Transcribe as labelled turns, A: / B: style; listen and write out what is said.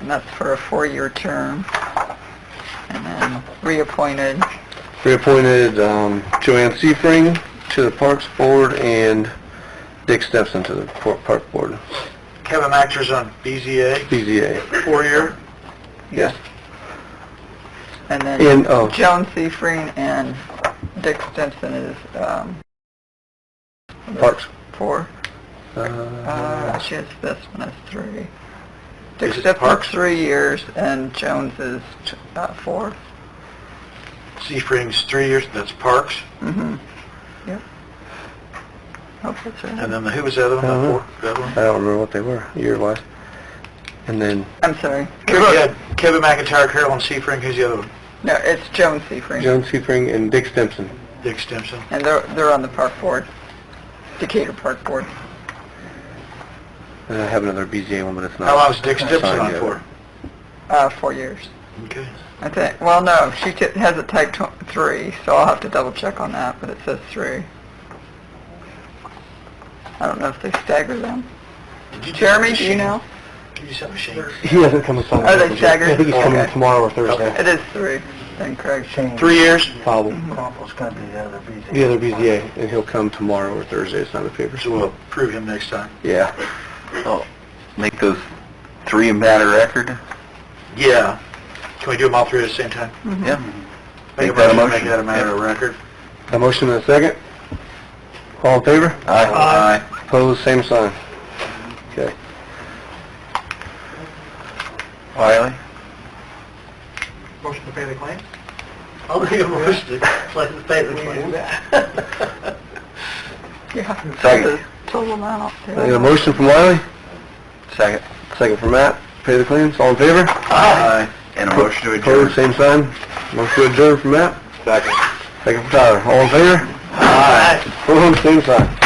A: and that's for a four-year term, and then reappointed.
B: Reappointed um, Joanne Seifring to the Parks Board and Dick Stepson to the Por- Park Board,
C: Kevin Actors on BZA,
B: BZA.
C: four-year.
B: Yes.
A: And then
B: And, oh,
A: Joan Seafreen and Dick Stinson is, um,
B: Parks.
A: four.
B: Uh,
A: Uh, she has this one as three.
C: Is
A: Dick
C: it
A: Stinson's
C: Parks?
A: three years, and Jones is, uh, four.
C: Seafrings, three years, that's Parks.
A: Mm-hmm. Yep. Hope that's
C: And
A: right.
C: then the- who was the other one,
B: Uh-huh.
C: the fourth, that
B: I
C: one?
B: don't remember what they were, year-wise. And then,
A: I'm sorry.
C: You had Kevin McIntyre, Carolyn Seafring, who's the other one?
A: No, it's Joan Seafreen,
B: Joan Seifring and Dick Stepson.
C: Dick
D: Uh,
C: Stimson.
A: and they're, they're on the park board, Decatur Park Board.
B: And I have another BZA one, but it's not.
C: How long Oh, was Dick
B: not
C: Stimson
B: signed
C: on
B: yet.
C: for?
A: Uh, four years.
C: Okay.
A: I think, well, no, she t- has it typed tw- three, so I'll have to double check on that, but it says three. I don't know if they stagger them.
C: Did you do
A: Jeremy,
C: that,
A: do you
C: Shane?
A: know?
C: Can you send me Shane?
B: He hasn't come with something.
A: Are they staggered?
B: I think he's coming
A: Okay.
B: tomorrow or Thursday.
A: It is three, then Craig.
C: Three years?
B: Probably.
C: Crumple's gonna be the other BZA.
B: The other BZA, and he'll come tomorrow or Thursday, it's not the papers.
C: So we'll approve him next time.
B: Yeah.
D: So, make those three a matter record?
C: Yeah. Can we do them all three at the same time?
A: Mm-hmm.
D: Yeah.
C: Make a
D: Make that a
C: motion, make
D: motion.
C: that a matter of record.
B: A motion and a second? All in favor?
D: Aye.
B: Opposed, same sign. Okay.
D: Wiley?
C: Motion to pay the claim? I'll make a motion to pay the claim.
A: Yeah.
D: Second.
A: Total amount.
B: I got a motion from Wiley,
D: Second.
B: second from Matt. Pay the claims, all in favor?
D: Aye. And a motion to adjourn?
B: Opposed, same sign. Motion to adjourn from Matt,
D: Second.
B: second from Tyler. All in favor?
D: Aye.
B: Opposed, same sign.